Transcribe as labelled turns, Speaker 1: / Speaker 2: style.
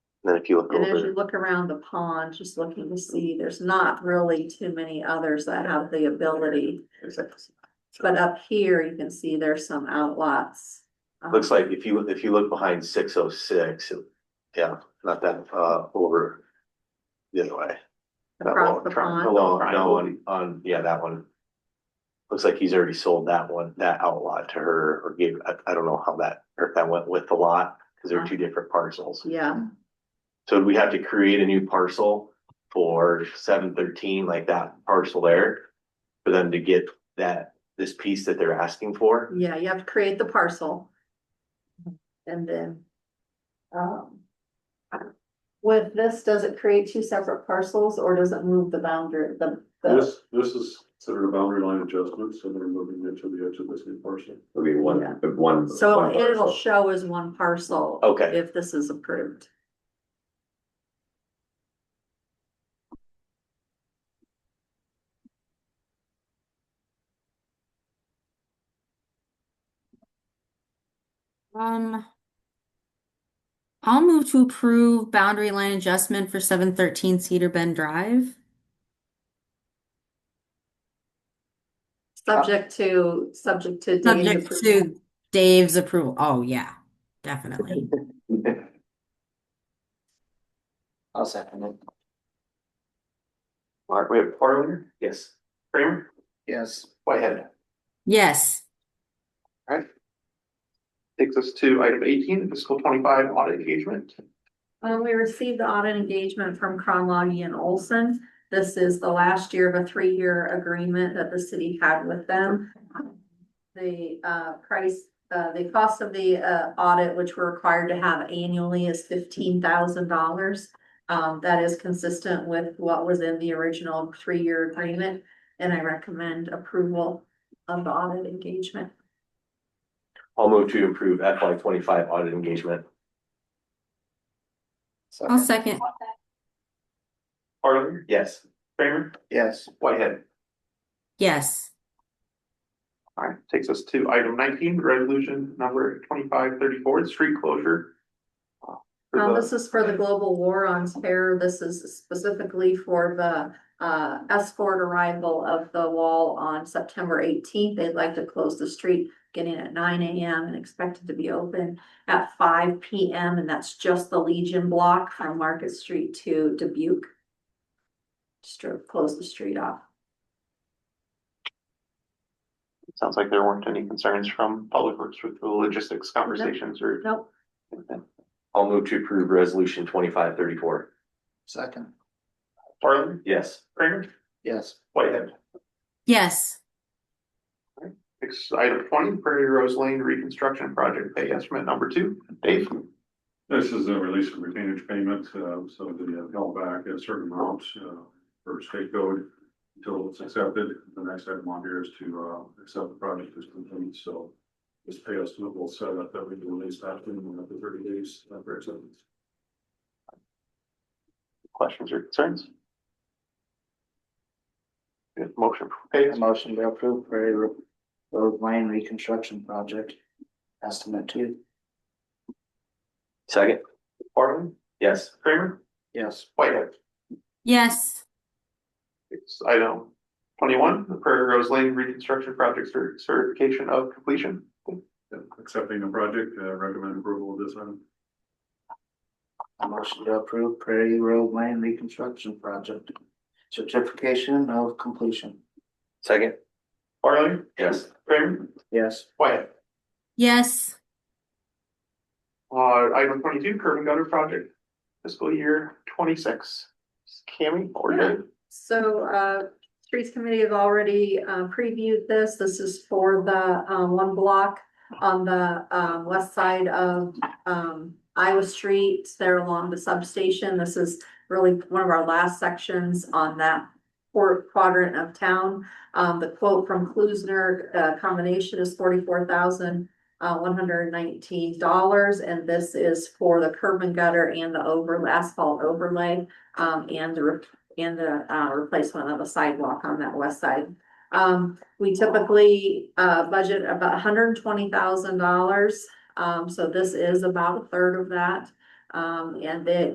Speaker 1: Then if you look
Speaker 2: And as you
Speaker 1: over,
Speaker 2: look around the pond, just looking to see, there's not really too many others that have the ability. But up here, you can see there's some outlots. um,
Speaker 1: looks like if you, if you look behind six oh six, yeah, not that, uh, over. The other way. That
Speaker 2: Across
Speaker 1: long
Speaker 2: the
Speaker 1: tri-
Speaker 2: pond,
Speaker 1: long- no,
Speaker 3: Triangle.
Speaker 1: on, on, yeah, that one. Looks like he's already sold that one, that outlot to her or gave, I, I don't know how that, or if that went with the lot, cause they're two different parcels.
Speaker 2: Uh-huh. yeah,
Speaker 1: So we have to create a new parcel for seven thirteen, like that parcel there. For them to get that, this piece that they're asking for.
Speaker 2: yeah, you have to create the parcel. And then. Um. With this, does it create two separate parcels or does it move the boundary, the, the,
Speaker 4: This, this is considered a boundary line adjustment, so they're moving it to the edge of this new parcel.
Speaker 3: It'll be one,
Speaker 2: Yeah.
Speaker 3: one.
Speaker 2: so
Speaker 3: one
Speaker 2: it'll
Speaker 3: parcel.
Speaker 2: show as one parcel.
Speaker 1: Okay.
Speaker 2: If this is approved.
Speaker 5: Um. I'll move to approve boundary line adjustment for seven thirteen Cedar Bend Drive.
Speaker 2: Subject to, subject to. Dane's
Speaker 5: Subject
Speaker 2: approval.
Speaker 5: to Dave's approval. Oh, yeah, definitely.
Speaker 6: I'll second it.
Speaker 1: All right, we have Farland, yes, Kramer,
Speaker 6: Yes.
Speaker 1: Whitehead.
Speaker 5: Yes,
Speaker 1: Takes us to item eighteen, fiscal twenty-five audit engagement.
Speaker 2: Um, we received the audit engagement from Cronloggy and Olson. This is the last year of a three-year agreement that the city had with them. The, uh, price, uh, the cost of the, uh, audit, which we're required to have annually is fifteen thousand dollars. Um, that is consistent with what was in the original three-year agreement, and I recommend approval of the audit engagement.
Speaker 1: I'll move to improve FY twenty-five audit engagement.
Speaker 5: I'll second.
Speaker 1: Farland, yes, Kramer,
Speaker 6: Yes.
Speaker 1: Whitehead.
Speaker 5: Yes,
Speaker 1: All right, takes us to item nineteen, resolution number twenty-five thirty-four, street closure. Uh, for
Speaker 2: Um,
Speaker 1: the-
Speaker 2: this is for the global war on terror. This is specifically for the uh escort arrival of the wall on September eighteenth. They'd like to close the street beginning at nine AM and expected to be open at five PM, and that's just the Legion block from Market Street to Dubuque. Just to close the street off.
Speaker 1: Sounds like there weren't any concerns from Public Works with the logistics conversations or.
Speaker 2: Nope.
Speaker 1: I'll move to approve resolution twenty-five thirty-four.
Speaker 6: Second.
Speaker 1: Farland? Yes. Kramer?
Speaker 6: Yes.
Speaker 1: Whitehead.
Speaker 5: yes,
Speaker 1: Next, item twenty, Prairie Rose Lane Reconstruction Project Pay Estimate Number Two. Dave?
Speaker 4: This is a release of retainage payment, uh, so they have held back a certain amount, uh, for state code until it's accepted. The next item on here is to, uh, accept the project as complete, so this pay estimate will set up that we can release that in uh, the thirty days after acceptance.
Speaker 1: Questions or concerns? Good, Motion for pay estimate.
Speaker 6: Motion to approve Prairie Ro- Road Lane Reconstruction Project. Estimate two.
Speaker 1: Second. Farland? Yes. Kramer?
Speaker 6: Yes.
Speaker 1: Whitehead.
Speaker 5: yes,
Speaker 1: It's item twenty-one, the Prairie Rose Lane Reconstruction Project Cer- Certification of Completion.
Speaker 4: Yeah, Accepting the project, uh, recommend approval of this item.
Speaker 6: A motion to approve Prairie Road Lane Reconstruction Project. Certification of completion.
Speaker 1: Second. Farland? Yes. Kramer?
Speaker 6: Yes.
Speaker 1: Whitehead.
Speaker 5: yes,
Speaker 1: Uh, item twenty-two, curb and gutter project, fiscal year twenty-six. Cammy or
Speaker 2: Yeah.
Speaker 1: Dave?
Speaker 2: So, uh, Streets Committee have already, uh, previewed this. This is for the, uh, one block on the, um, west side of, um, Iowa Street, there along the substation. This is really one of our last sections on that quar- quadrant of town. Um, the quote from Klusner, uh, combination is forty-four thousand, uh, dollars, and this is for the curb and gutter and the over, asphalt overlay, um, and the rep- and the uh replacement of a sidewalk on that west side. Um, we typically uh budget about hundred and twenty thousand dollars. Um, so this is about a third of that. Um, and it